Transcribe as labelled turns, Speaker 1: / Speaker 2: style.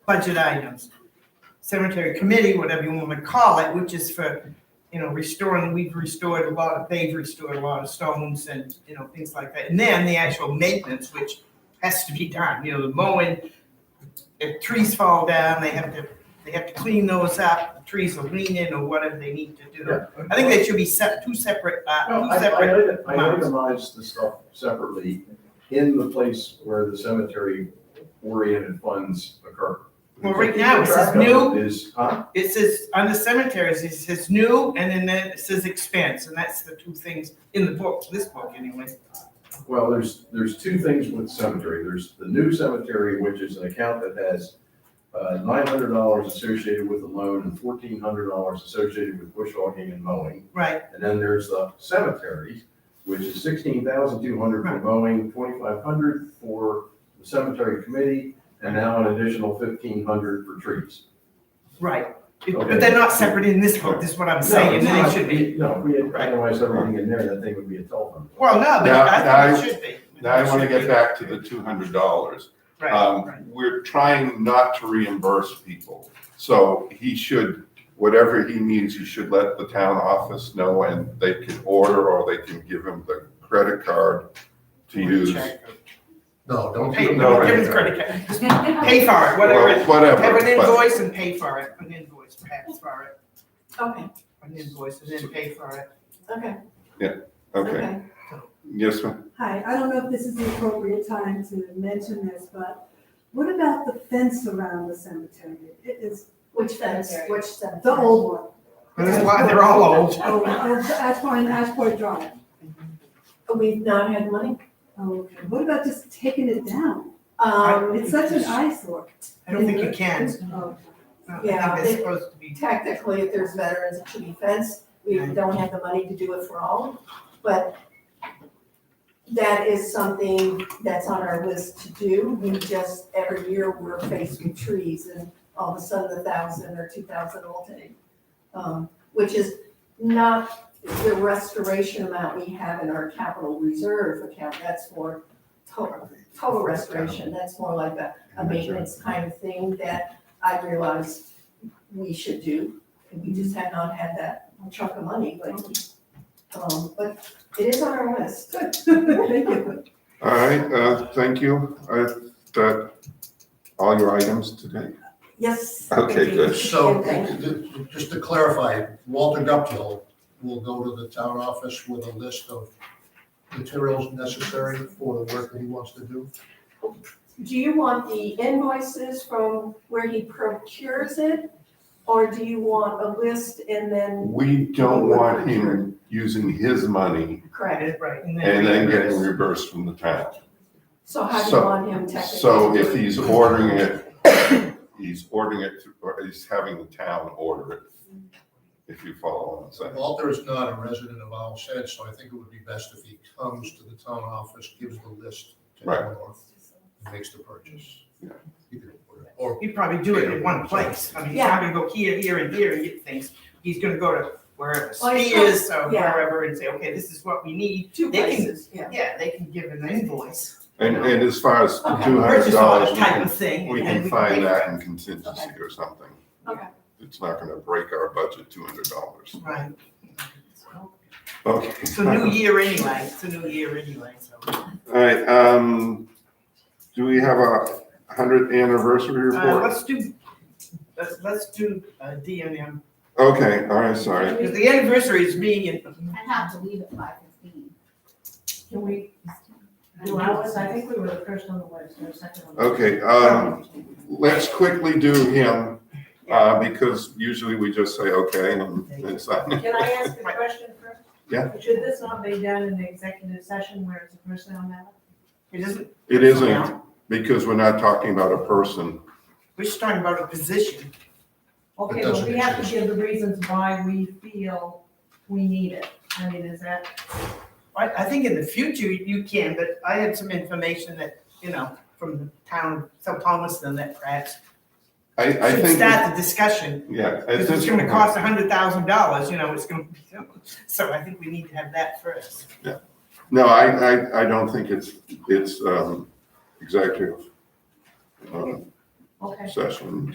Speaker 1: budget items. Cemetery committee, whatever you want to call it, which is for, you know, restoring, we've restored a lot of, they've restored a lot of stones and, you know, things like that. And then the actual maintenance, which has to be done, you know, the mowing, if trees fall down, they have to, they have to clean those up, the trees are leaning or whatever they need to do. I think they should be set, two separate,
Speaker 2: No,
Speaker 1: uh,
Speaker 2: I,
Speaker 1: two
Speaker 2: I
Speaker 1: separate,
Speaker 2: item- I
Speaker 1: amounts.
Speaker 2: itemized the stuff separately in the place where the cemetery oriented funds occur.
Speaker 1: Well, right now, it says
Speaker 2: Track of
Speaker 1: new-
Speaker 2: Is, huh?
Speaker 1: it says, under cemeteries, it says new, and then there- it says expense, and that's the two things in the book, this book anyway.
Speaker 2: Well, there's, there's two things with cemetery. There's the new cemetery, which is an account that has uh, nine hundred dollars associated with the loan and fourteen hundred dollars associated with bush hogging and mowing.
Speaker 1: Right,
Speaker 2: And then there's the cemetery, which is sixteen thousand two hundred for mowing, twenty-five hundred for the cemetery committee, and now an additional fifteen hundred for trees.
Speaker 1: right. It-
Speaker 2: Okay.
Speaker 1: But they're not separate in this book, is what I'm saying,
Speaker 2: No,
Speaker 1: and they
Speaker 2: it's
Speaker 1: should
Speaker 2: not.
Speaker 1: be.
Speaker 2: No, if we had itemized everything in there, that thing would be a telephone.
Speaker 1: Well, no, but
Speaker 3: Now-
Speaker 1: I
Speaker 3: now
Speaker 1: think
Speaker 3: I-
Speaker 1: it should be.
Speaker 3: Now, I want to
Speaker 1: It should
Speaker 3: get
Speaker 1: be.
Speaker 3: back to the two hundred dollars.
Speaker 1: Right, right.
Speaker 3: Um, we're trying not to reimburse people. So he should, whatever he needs, he should let the town office know and they can order or they can give him the credit card to use.
Speaker 1: Check.
Speaker 4: No, don't.
Speaker 1: Pay,
Speaker 4: do
Speaker 1: give
Speaker 3: No, right,
Speaker 1: them the credit card, Just pay for it, whatever,
Speaker 3: Well,
Speaker 1: it- have an
Speaker 3: Whatever, but
Speaker 1: invoice and pay for it, an invoice, perhaps for it,
Speaker 5: Okay,
Speaker 1: an invoice and then pay for it.
Speaker 5: okay,
Speaker 3: okay,
Speaker 5: okay.
Speaker 3: yes, ma'am.
Speaker 6: Hi, I don't know if this is the appropriate time to mention this, but what about the fence around the cemetery? It is
Speaker 5: Which fence, which cemetery?
Speaker 6: the old one.
Speaker 1: That's why they're all old.
Speaker 6: Oh, that's Ashmore and Ashport Drive.
Speaker 5: We've not had money.
Speaker 6: Oh, okay. What about just taking it down?
Speaker 5: Um,
Speaker 6: It's such an eyesore.
Speaker 1: I don't think you can.
Speaker 6: Oh,
Speaker 1: I don't
Speaker 5: Yeah,
Speaker 1: think they're
Speaker 5: they-
Speaker 1: supposed to be.
Speaker 5: technically, if there's veterans, it should be fenced. We don't have the money to do it for all, but that is something that's on our list to do. We just, every year, we're faced with trees and all of a sudden a thousand or two thousand will take. Um, which is not the restoration amount we have in our capital reserve account. That's for total, total restoration. That's more like a, a maintenance kind of thing that I realize we should do, and we just had not had that chunk of money, but, um, but it is on our list.
Speaker 6: Thank you.
Speaker 3: All right, uh, thank you. I, that, all your items today?
Speaker 5: Yes.
Speaker 3: Okay,
Speaker 5: thank you.
Speaker 3: good.
Speaker 4: So,
Speaker 5: Okay.
Speaker 4: just to clarify, Walter Guptill will go to the town office with a list of materials necessary for the work that he wants to do.
Speaker 5: Do you want the invoices from where he procures it? Or do you want a list and then,
Speaker 3: We don't want him using his money
Speaker 5: correct?
Speaker 1: Right.
Speaker 3: and then getting
Speaker 1: reimbursed.
Speaker 3: reimbursed from the town.
Speaker 5: So how do you
Speaker 3: So-
Speaker 5: want him technically?
Speaker 3: So
Speaker 5: to
Speaker 3: if
Speaker 5: do it?
Speaker 3: he's ordering it, he's ordering it, through- or he's having the town order it, if you follow what I'm saying.
Speaker 4: Walter is not a resident of Owl Said, so I think it would be best if he comes to the town office, gives the list to
Speaker 3: Right.
Speaker 4: Eleanor, and makes the purchase.
Speaker 3: Yeah.
Speaker 4: He can order it. Or
Speaker 1: He'd probably do it in one place. I mean, he's not gonna go here, here, and here and get things. He's gonna go to wherever
Speaker 5: Well, he's
Speaker 1: Steve is or
Speaker 5: yeah.
Speaker 1: wherever and say, okay, this is what we need.
Speaker 5: Two
Speaker 1: they can-
Speaker 5: places, yeah.
Speaker 1: Yeah, they can give an invoice.
Speaker 3: And, and as far as
Speaker 5: Okay.
Speaker 3: two hundred
Speaker 1: Purchase order
Speaker 3: dollars, we
Speaker 1: Type
Speaker 3: can,
Speaker 1: of thing.
Speaker 3: we
Speaker 1: and
Speaker 3: can
Speaker 1: we
Speaker 3: find
Speaker 1: pay
Speaker 3: that
Speaker 1: for
Speaker 3: in contingency or something.
Speaker 5: Okay.
Speaker 3: It's not gonna break our budget, two hundred dollars.
Speaker 1: it. Right.
Speaker 3: Okay.
Speaker 1: It's a new year anyway. It's a new year anyway, so. uh,
Speaker 3: All right, um, do we have a hundredth anniversary
Speaker 1: Uh,
Speaker 3: report?
Speaker 1: let's do, let's, let's do uh, D and M.
Speaker 3: Okay, all right, sorry.
Speaker 1: Because the anniversary is being in.
Speaker 7: I'd have to leave at five fifteen.
Speaker 8: Can we, do ours? I think we were the first on the list, or the second on the list.
Speaker 3: Okay, um, let's quickly do him, uh, because usually we just say, okay, and it's not.
Speaker 8: Can I ask a question first?
Speaker 3: Yeah.
Speaker 8: Should this not be done in the executive session where it's a personnel matter?
Speaker 1: It isn't,
Speaker 3: It isn't, because we're not talking about a person.
Speaker 1: we're just talking about a position.
Speaker 8: Okay, well,
Speaker 4: doesn't
Speaker 8: we have to
Speaker 4: exist.
Speaker 8: give the reasons why we feel we need it. I mean, is that,
Speaker 1: I, I think in the future you can, but I had some information that, you know, from the town, St. Palmerston, that perhaps
Speaker 3: I, I
Speaker 1: should
Speaker 3: think,
Speaker 1: start the discussion.
Speaker 3: yeah. I
Speaker 1: Because it's
Speaker 3: think-
Speaker 1: gonna cost a hundred thousand dollars, you know, it's gonna, be so I think we need to have that first.
Speaker 3: No, I, I, I don't think it's, it's, um, executive. Uh,
Speaker 8: Okay.
Speaker 3: session